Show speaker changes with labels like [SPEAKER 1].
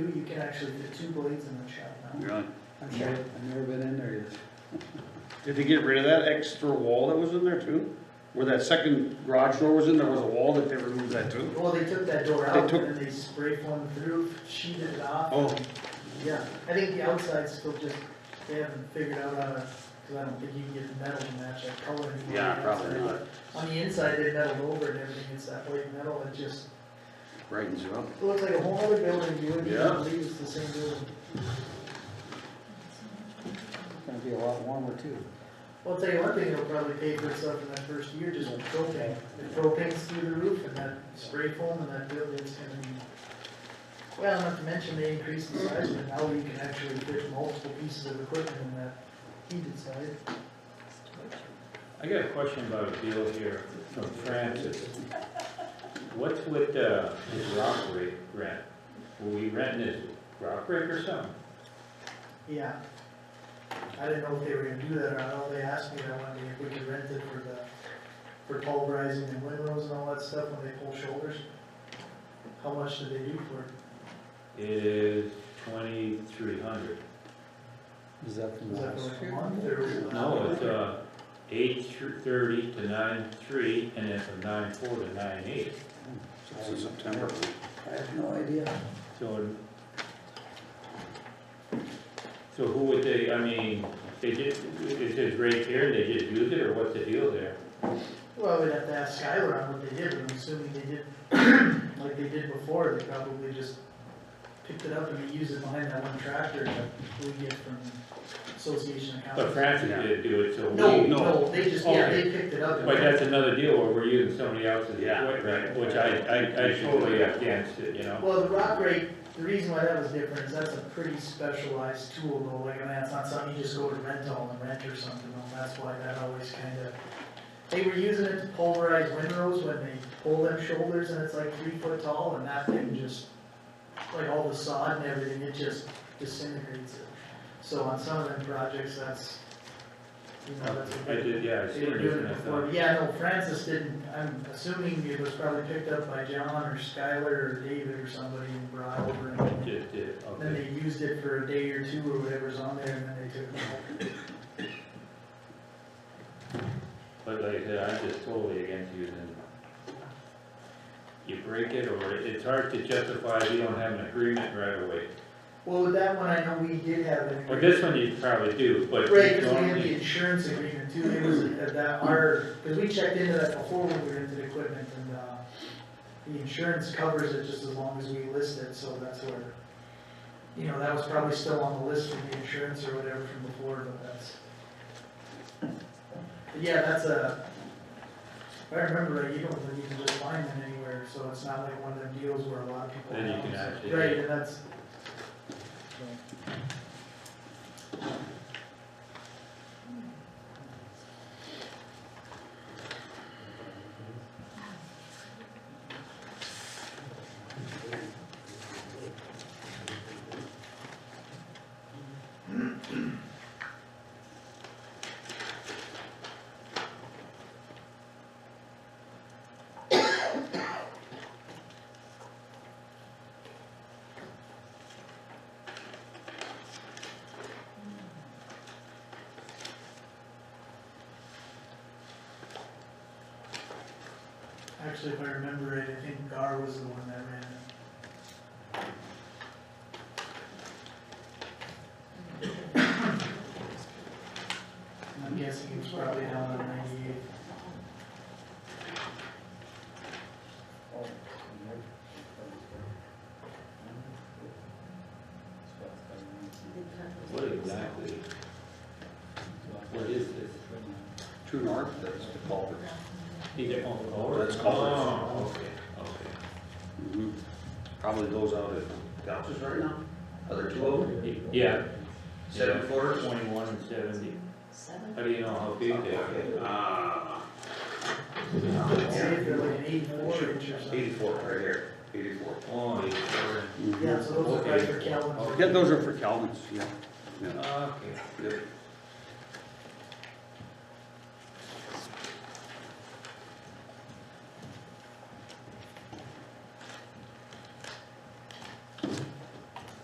[SPEAKER 1] three, you can actually get two blades in the shop now.
[SPEAKER 2] Really?
[SPEAKER 1] That's
[SPEAKER 3] I've never-
[SPEAKER 1] right.
[SPEAKER 3] I've never been in there yet.
[SPEAKER 4] Did they get rid of that extra wall that was in there too? Where that second garage door was in, there was a wall that they removed that too?
[SPEAKER 1] Well, they took that door
[SPEAKER 4] They
[SPEAKER 1] out
[SPEAKER 4] took-
[SPEAKER 1] and then they spray formed the roof, sheeted it off.
[SPEAKER 4] Oh,
[SPEAKER 1] Yeah, I think the outside's still just, they haven't figured out how to, cause I don't think you can get the metal to match that color anymore.
[SPEAKER 2] Yeah, probably not.
[SPEAKER 1] On the inside, they metaled over and everything, it's that white metal, it just,
[SPEAKER 2] Brightens you up.
[SPEAKER 1] it looks like a whole other building, you wouldn't
[SPEAKER 4] Yeah.
[SPEAKER 1] even believe it's the same building.
[SPEAKER 3] It's gonna be a lot warmer too.
[SPEAKER 1] Well, I'll tell you one thing, it'll probably pay for itself in that first year, just with propane. The propane's through the roof and that spray foam and that building's gonna be, well, not to mention they increased the size, but now you can actually fit multiple pieces of equipment in that heated side.
[SPEAKER 5] I got a question about a deal here from Francis. What's with, uh, his rock rake rent? Will we rent his rock rake or something?
[SPEAKER 1] Yeah. I didn't know if they were gonna do that or not, All they asked me, I wanted if we could rent it for the, for pulverizing and windrows and all that stuff when they pull shoulders. How much do they do for it?
[SPEAKER 5] It is twenty-three hundred.
[SPEAKER 3] Is that from
[SPEAKER 1] Is that
[SPEAKER 3] last
[SPEAKER 1] for like a
[SPEAKER 3] year?
[SPEAKER 1] month or?
[SPEAKER 5] No, it's, uh, eight thirty to nine-three, and then from nine-four to nine-eight.
[SPEAKER 2] It's in September.
[SPEAKER 3] I have no idea.
[SPEAKER 5] So, so who would they, I mean, they just, is his rate there, they just use it, or what's the deal there?
[SPEAKER 1] Well, we'd have to ask Skylar on what they did, but I'm assuming they did, like they did before, they probably just picked it up and used it behind that one tractor that we get from Association of
[SPEAKER 5] But
[SPEAKER 1] Counties.
[SPEAKER 5] Francis did do it, so we. Oh,
[SPEAKER 1] No, no, they just, yeah, they
[SPEAKER 5] Okay.
[SPEAKER 1] picked it up. and-
[SPEAKER 5] But that's another deal where we're using somebody else's
[SPEAKER 2] Yeah.
[SPEAKER 5] equipment, which I, I, I totally against it, you know?
[SPEAKER 1] Well, the rock rake, the reason why that was different is that's a pretty specialized tool though, like, I mean, that's not something you just go to rental and rent or something, and that's why that always kinda. They were using it to pulverize windrows when they pull them shoulders and it's like three foot tall and that thing just, like all the sod and everything, it just disintegrates it. So on some of them projects, that's, you know, that's. a
[SPEAKER 5] I did, yeah, I
[SPEAKER 1] they
[SPEAKER 5] seen
[SPEAKER 1] were
[SPEAKER 5] it,
[SPEAKER 1] doing
[SPEAKER 5] and
[SPEAKER 1] it
[SPEAKER 5] I
[SPEAKER 1] before,
[SPEAKER 5] thought,
[SPEAKER 1] yeah, no, Francis didn't, I'm assuming it was probably picked up by John or Skylar or David or somebody and brought over. and
[SPEAKER 5] just did,
[SPEAKER 1] Then
[SPEAKER 5] okay.
[SPEAKER 1] they used it for a day or two or whatever's on there and then they took it out.
[SPEAKER 5] But like I said, I'm just totally against using it. You break it, or it's hard to justify if you don't have an agreement right away.
[SPEAKER 1] Well, with that one, I know we did have an
[SPEAKER 5] Well,
[SPEAKER 1] agreement.
[SPEAKER 5] this one you probably do, but.
[SPEAKER 1] Right, because we had the
[SPEAKER 5] normally-
[SPEAKER 1] insurance agreement too, it was uh, that our, because we checked into that before when we rented equipment and, uh, the insurance covers it just as long as we list it, so that's where, you know, that was probably still on the list from the insurance or whatever from before, but that's. But yeah, that's a, if I remember, right, you don't think you can just find them anywhere, so it's not like one of them deals where a lot of people.
[SPEAKER 5] Then you can
[SPEAKER 1] have them.
[SPEAKER 5] actually-
[SPEAKER 1] Right, and that's. so. Actually, if I remember it, I think Gar was the one that ran it. And I'm guessing it was probably down on ninety-eight.
[SPEAKER 5] What exactly? What is this?
[SPEAKER 2] True North, that's the culvert.
[SPEAKER 5] These are all colors?
[SPEAKER 2] That's colors.
[SPEAKER 5] Oh, okay, okay.
[SPEAKER 4] Mm-hmm.
[SPEAKER 2] Mhm. Probably goes out at Gouch's right now. Other two of them,
[SPEAKER 5] Yeah.
[SPEAKER 2] seven
[SPEAKER 5] Yeah.
[SPEAKER 2] footers.
[SPEAKER 5] Twenty-one and seventy. How do you know how big they are?
[SPEAKER 2] Uh,
[SPEAKER 1] I'd say if they're like an eighty-four inch or something.
[SPEAKER 2] eighty-four right here, eighty-four.
[SPEAKER 5] Oh, you sure?
[SPEAKER 4] Mm-hmm.
[SPEAKER 1] Yeah, so those are right for Calvin's.
[SPEAKER 2] Yeah, those are for Calvin's, yeah.
[SPEAKER 5] Okay.
[SPEAKER 2] Yep.